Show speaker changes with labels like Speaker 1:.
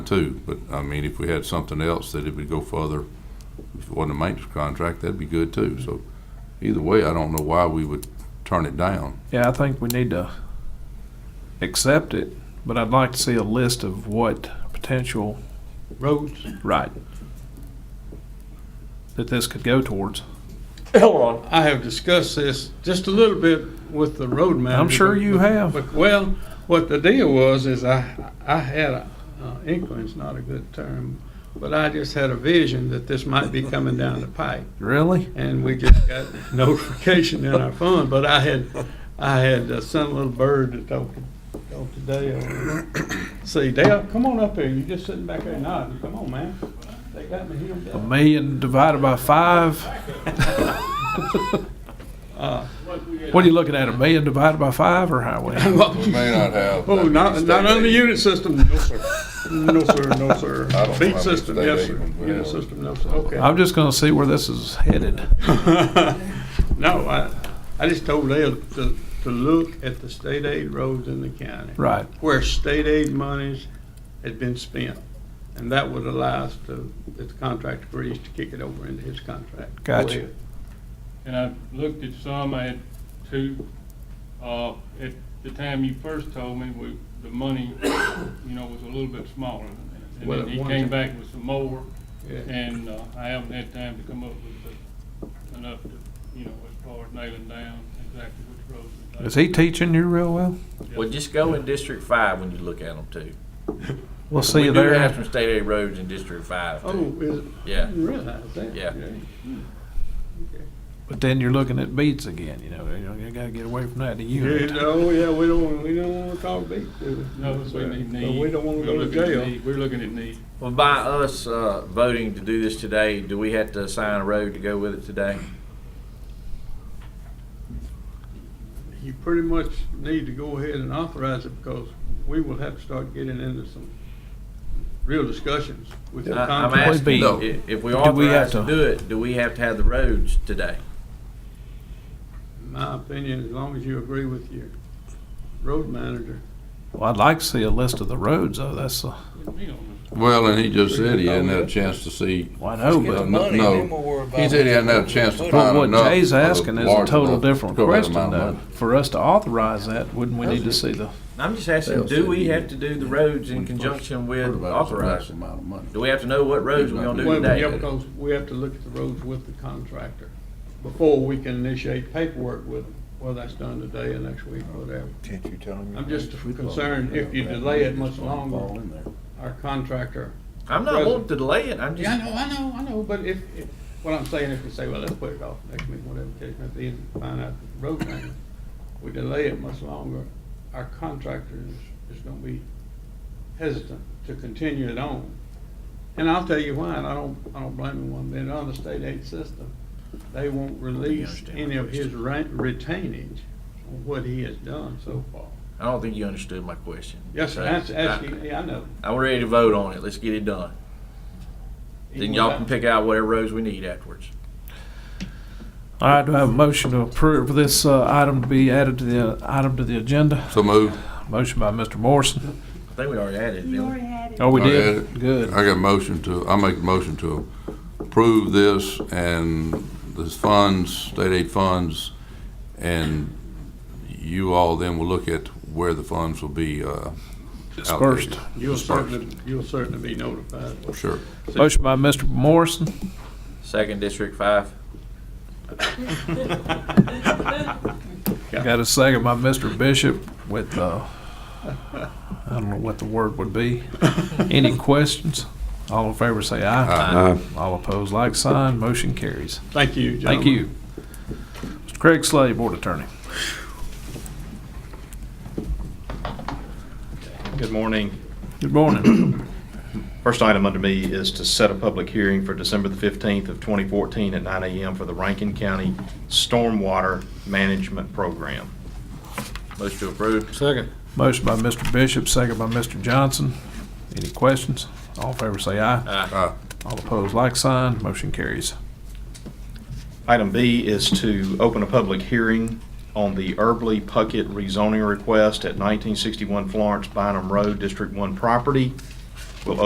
Speaker 1: too, but I mean, if we had something else that it would go further, if it wasn't a maintenance contract, that'd be good too, so either way, I don't know why we would turn it down.
Speaker 2: Yeah, I think we need to accept it, but I'd like to see a list of what potential
Speaker 3: Roads,
Speaker 2: right that this could go towards.
Speaker 4: Hold on.
Speaker 3: I have discussed this just a little bit with the road manager.
Speaker 2: I'm sure you
Speaker 3: but-
Speaker 2: have.
Speaker 3: But, well, what the deal was is I, I had, a- uh, inquiry's not a good term, but I just had a vision that this might be coming down the pipe.
Speaker 2: Really?
Speaker 3: And we just got notification in our phone, but I had, I had uh, sent a little bird to talk, talk to Dale. See, Dale, come on up here. You just sitting back there nodding. Come on, man. They got me here.
Speaker 2: A million divided by five? What are you looking at? A million divided by five or highway?
Speaker 1: may not have.
Speaker 3: Oh, not, not on the unit system, no, sir. No, sir, no, sir.
Speaker 1: I don't
Speaker 3: Beat
Speaker 1: have
Speaker 3: system,
Speaker 1: state
Speaker 3: yes,
Speaker 1: aid
Speaker 3: sir.
Speaker 1: when we
Speaker 3: Unit
Speaker 1: have it.
Speaker 3: system, no, sir, okay.
Speaker 2: I'm just gonna see where this is headed.
Speaker 3: No, I, I just told Dale to, to look at the state aid roads in the county.
Speaker 2: Right.
Speaker 3: Where state aid monies had been spent, and that would allow us to, if the contract agrees, to kick it over into his contract. Go
Speaker 2: Gotcha.
Speaker 3: ahead.
Speaker 5: And I looked at some, I had two, uh, at the time you first told me, we, the money, you know, was a little bit smaller than that. And
Speaker 3: Well,
Speaker 5: then he
Speaker 3: one
Speaker 5: came
Speaker 3: thing-
Speaker 5: back with some more,
Speaker 3: Yeah.
Speaker 5: and, uh, I haven't had time to come up with the- enough to, you know, as far as nailing down exactly which roads. it's
Speaker 2: Is he teaching you real well?
Speaker 6: Well, just go in District Five when you look at them too.
Speaker 2: We'll see you
Speaker 6: We do have
Speaker 2: there.
Speaker 6: some state aid roads in District Five too.
Speaker 3: Oh, is it? I
Speaker 6: Yeah.
Speaker 3: didn't realize that.
Speaker 6: Yeah.
Speaker 2: But then you're looking at beats again, you know, you know, you gotta get away from that to
Speaker 3: Yeah,
Speaker 2: unit.
Speaker 3: oh, yeah, we don't, we don't wanna talk beat, do we?
Speaker 5: No, we need
Speaker 3: But
Speaker 5: need.
Speaker 3: We don't wanna
Speaker 5: We're
Speaker 3: go to
Speaker 5: looking at
Speaker 3: jail.
Speaker 5: need. We're looking at need.
Speaker 6: Well, by us, uh, voting to do this today, do we have to assign a road to go with it today?
Speaker 3: You pretty much need to go ahead and authorize it because we will have to start getting into some real discussions with the
Speaker 6: I- I'm
Speaker 3: contract.
Speaker 6: asking,
Speaker 2: No.
Speaker 6: i- if we
Speaker 2: Do we have
Speaker 6: authorize
Speaker 2: to-
Speaker 6: to do it, do we have to have the roads today?
Speaker 3: In My opinion, as long as you agree with your road manager.
Speaker 2: Well, I'd like to see a list of the roads, though, that's, uh,
Speaker 5: You know,
Speaker 1: Well, and he just said he hadn't had a chance to see
Speaker 2: I know,
Speaker 1: Just get
Speaker 2: but.
Speaker 1: the Oh, money, and then we'll worry about He said he hadn't had a chance to find
Speaker 2: What
Speaker 1: enough
Speaker 2: Jay's
Speaker 1: of a
Speaker 2: asking is a
Speaker 1: large
Speaker 2: total
Speaker 1: enough
Speaker 2: different
Speaker 1: to cover that
Speaker 2: question,
Speaker 1: amount of
Speaker 2: though.
Speaker 1: money.
Speaker 2: For us to authorize that, wouldn't we need to see the,
Speaker 6: I'm just asking, do we have to do the roads in conjunction with authorizing?
Speaker 1: Amount of money.
Speaker 6: Do we have to know what roads we're gonna do
Speaker 3: Well, yeah,
Speaker 6: today?
Speaker 3: because we have to look at the roads with the contractor before we can initiate paperwork with them, whether that's done today or next week, whatever.
Speaker 7: Can't you tell him?
Speaker 3: I'm just concerned if you delay it much longer, our contractor
Speaker 6: I'm not wanting to delay it, I'm
Speaker 3: Yeah, I
Speaker 6: just,
Speaker 3: know, I know, I know, but if, if, what I'm saying, if we say, well, let's put it off next week, whatever, case may be, and find out the road name, we delay it much longer, our contractor is, is gonna be hesitant to continue it on. And I'll tell you why, and I don't, I don't blame him one bit, on the state aid system, they won't release
Speaker 6: understand my
Speaker 3: any of his ra- retainage on what he has done so far.
Speaker 6: I don't think you understood my question.
Speaker 3: Yes, sir,
Speaker 6: So,
Speaker 3: that's, that's,
Speaker 6: I-
Speaker 3: yeah, I know.
Speaker 6: I'm ready to vote on it, let's get it done. Then y'all can pick out whatever roads we need afterwards.
Speaker 2: all right, do I have a motion to approve this, uh, item to be added to the, uh, item to the agenda?
Speaker 1: So moved.
Speaker 2: Motion by Mr. Morrison.
Speaker 6: I think we already added it.
Speaker 8: You
Speaker 6: didn't
Speaker 8: already had it.
Speaker 2: Oh, we
Speaker 1: I added
Speaker 2: did?
Speaker 1: it.
Speaker 2: Good.
Speaker 1: I got a motion to, I make a motion to approve this and this funds, state aid funds, and you all then will look at where the funds will be, uh,
Speaker 2: Dispersed.
Speaker 1: allocated.
Speaker 3: You'll
Speaker 1: Dispersed,
Speaker 3: certainly, you'll certainly be notified.
Speaker 1: Sure.
Speaker 2: Motion by Mr. Morrison,
Speaker 6: we? Second District Five.
Speaker 2: got a second by Mr. Bishop with, uh, I don't know what the word would be. Any questions? All in favor say aye. Aye. All opposed, like sign, motion carries.
Speaker 3: Thank you,
Speaker 2: Thank
Speaker 3: gentlemen.
Speaker 2: you. Mr. Craig Slade, Board Attorney.
Speaker 9: Good morning.
Speaker 2: Good morning.
Speaker 9: First item under me is to set a public hearing for December the 15th of 2014 at 9 a.m. for the Rankin County Stormwater Management Program.
Speaker 6: Motion to approve.
Speaker 3: Second.
Speaker 2: Motion by Mr. Bishop, second by Mr. Johnson. Any questions? All in favor say aye.
Speaker 1: Uh,
Speaker 2: All opposed, like sign, motion carries.
Speaker 9: Item B is to open a public hearing on the Erbley Puckett rezoning request at 1961 Florence Bynum Road, District 1 property.